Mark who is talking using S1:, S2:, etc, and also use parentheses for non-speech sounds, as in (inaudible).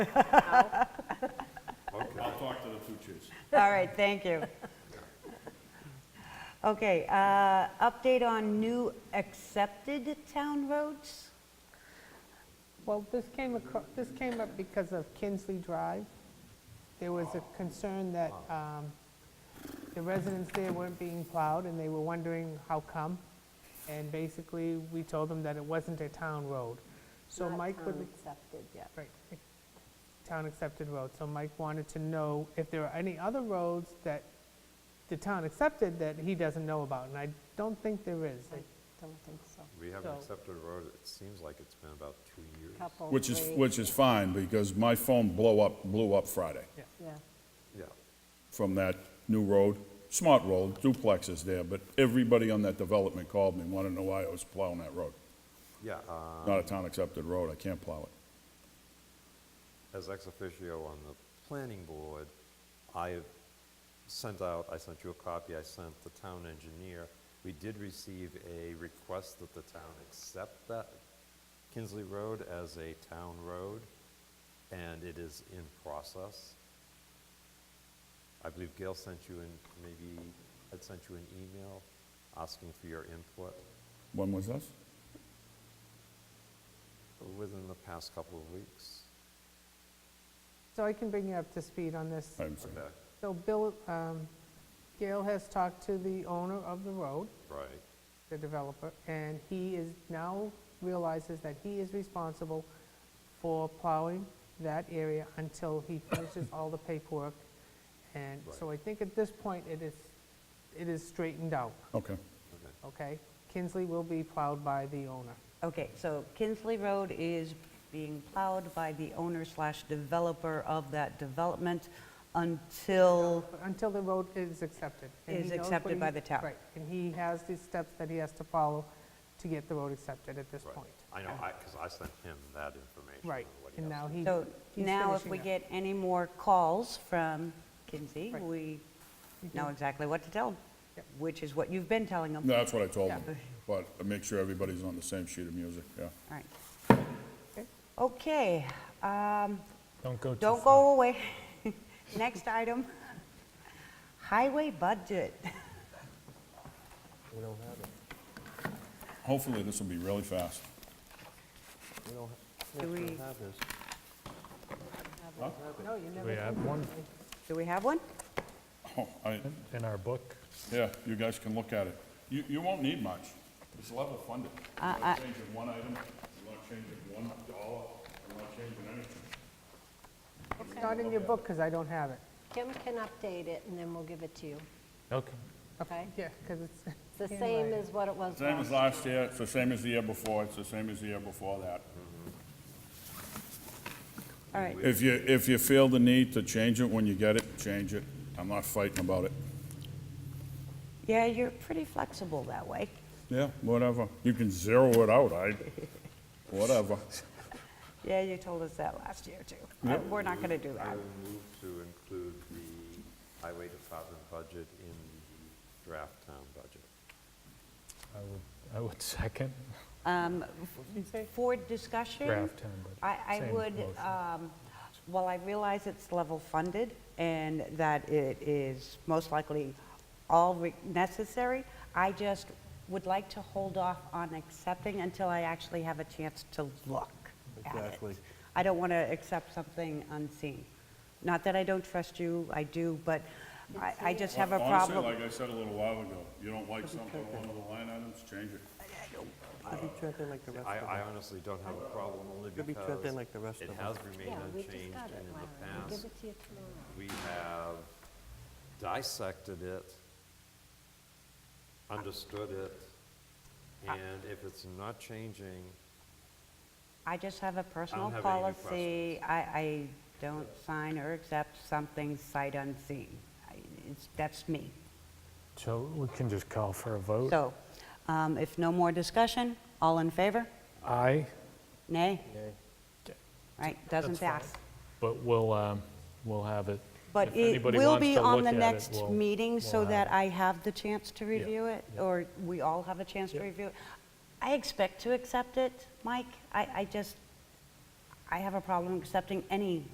S1: I'll talk to the two chiefs.
S2: All right, thank you. Okay, uh, update on new accepted town roads?
S3: Well, this came, acro- this came up because of Kinsley Drive. There was a concern that um, the residents there weren't being plowed, and they were wondering how come. And basically, we told them that it wasn't a town road. So Mike would,
S4: accepted yet.
S3: right, it- town accepted road. So Mike wanted to know if there are any other roads that the town accepted that he doesn't know about, and I don't think there is.
S4: I don't think so.
S5: We haven't
S3: So-
S5: accepted a road, it seems like it's been about two years.
S4: Couple,
S1: Which is,
S4: three,
S1: which is fine, because my phone blow up, blew up Friday
S4: Yeah,
S5: Yeah,
S1: from that new road, smart road, duplexes there, but everybody on that development called me, wanted to know why I was plowing that road.
S5: yeah, uh,
S1: Not a town-accepted road, I can't plow it.
S5: as ex officio on the planning board, I sent out, I sent you a copy, I sent the town engineer. We did receive a request that the town accept that Kinsley Road as a town road, and it is in process. I believe Gail sent you an maybe, had sent you an email asking for your input.
S1: When was this?
S5: Within the past couple of weeks.
S3: So I can bring you up to speed on this.
S1: I'm sorry.
S5: Okay,
S3: So Bill, um, Gail has talked to the owner of the road,
S5: right,
S3: the developer, and he is, now realizes that he is responsible for plowing that area until he finishes all the paperwork. And so I think at this point, it is, it is straightened out,
S1: Okay.
S5: okay.
S3: okay? Kinsley will be plowed by the owner.
S2: Okay, so Kinsley Road is being plowed by the owner slash developer of that development until,
S3: Until the road is accepted. and he
S2: Is
S3: knows what
S2: accepted by
S3: he-
S2: the town.
S3: Right, and he has the steps that he has to follow to get the road accepted at this
S5: Right.
S3: point.
S5: I know, I, because I sent him that information.
S3: Right,
S5: on what he
S3: and
S5: has
S3: now
S5: to-
S3: he.
S2: so
S3: he's
S2: now if
S3: finishing
S2: we
S3: up.
S2: get any more calls from Kinsey,
S3: Right.
S2: we know exactly what to tell them,
S3: Yep.
S2: which is what you've been telling them.
S1: No, That's what I told them,
S3: Yeah.
S1: but make sure everybody's on the same sheet of music, yeah.
S2: All right. Okay, um,
S6: Don't go too
S2: don't
S6: far.
S2: go away. (laughs) Next item, highway budget.
S7: We don't have it.
S1: Hopefully, this will be really fast.
S7: We don't,
S2: Do
S7: yeah, we
S2: we-
S7: don't have this.
S3: No, you never.
S6: We have one
S2: Do we have one?
S1: Oh, I,
S6: in our book.
S1: Yeah, you guys can look at it. You, you won't need much. It's level funded. I'm not changing one item, I'm not changing one dollar, I'm not changing anything.
S3: It's not in your book, because I don't have it.
S4: Kim can update it and then we'll give it to you,
S6: Okay.
S4: okay?
S3: Yeah, because it's.
S4: It's the same as what it was
S1: Same as
S4: last.
S1: last year, it's the same as the year before, it's the same as the year before that.
S2: All right,
S1: If you, if you feel the need to change it when you get it, change it. I'm not fighting about it.
S2: yeah, you're pretty flexible that way.
S1: Yeah, whatever. You can zero it out, I, whatever.
S2: Yeah, you told us that last year, too. Uh, We're not going to do
S5: I
S2: that.
S5: will move to include the highway department budget in the draft town budget.
S6: I would, I would (laughs) second
S2: Um,
S3: you say?
S2: For discussion.
S6: draft town budget.
S2: I, I
S6: Same
S2: would,
S6: motion.
S2: um, while I realize it's level funded and that it is most likely all re- necessary, I just would like to hold off on accepting until I actually have a chance to look at it.
S7: Exactly.
S2: I don't want to accept something unseen. Not that I don't trust you, I do, but I, I just have a problem.
S1: Honestly, like I said a little while ago, you don't like something, on one of the line items, change it.
S7: Could be treading like the rest
S5: I,
S7: of
S5: I
S7: them.
S5: honestly don't have a problem, only
S7: Could be
S5: because
S7: trapped in like the rest
S5: it
S7: of
S5: has
S7: us.
S5: remained
S4: Yeah, we just
S5: unchanged,
S4: got it,
S5: and in the
S4: Larry. We'll
S5: past,
S4: give it to you tomorrow.
S5: we have dissected it, understood it, and if it's not changing,
S2: I just have a personal
S5: have any
S2: policy. I, I don't sign or accept something sight unseen. I- It's, that's me.
S6: So we can just call for a vote.
S2: So, um, if no more discussion, all in favor?
S6: Aye,
S2: Nay?
S7: Nay.
S2: Right, doesn't
S6: That's fine.
S2: pass.
S6: but we'll, um, we'll have it.
S2: But
S6: If
S2: it
S6: anybody
S2: will
S6: wants
S2: be
S6: to
S2: on
S6: look
S2: the
S6: at it,
S2: next
S6: we'll-
S2: meeting so
S6: we'll have
S2: that I have the chance to review it,
S6: yeah.
S2: or we all have a chance to
S6: Yep.
S2: review it. I expect to accept it, Mike. I, I just, I have a problem accepting any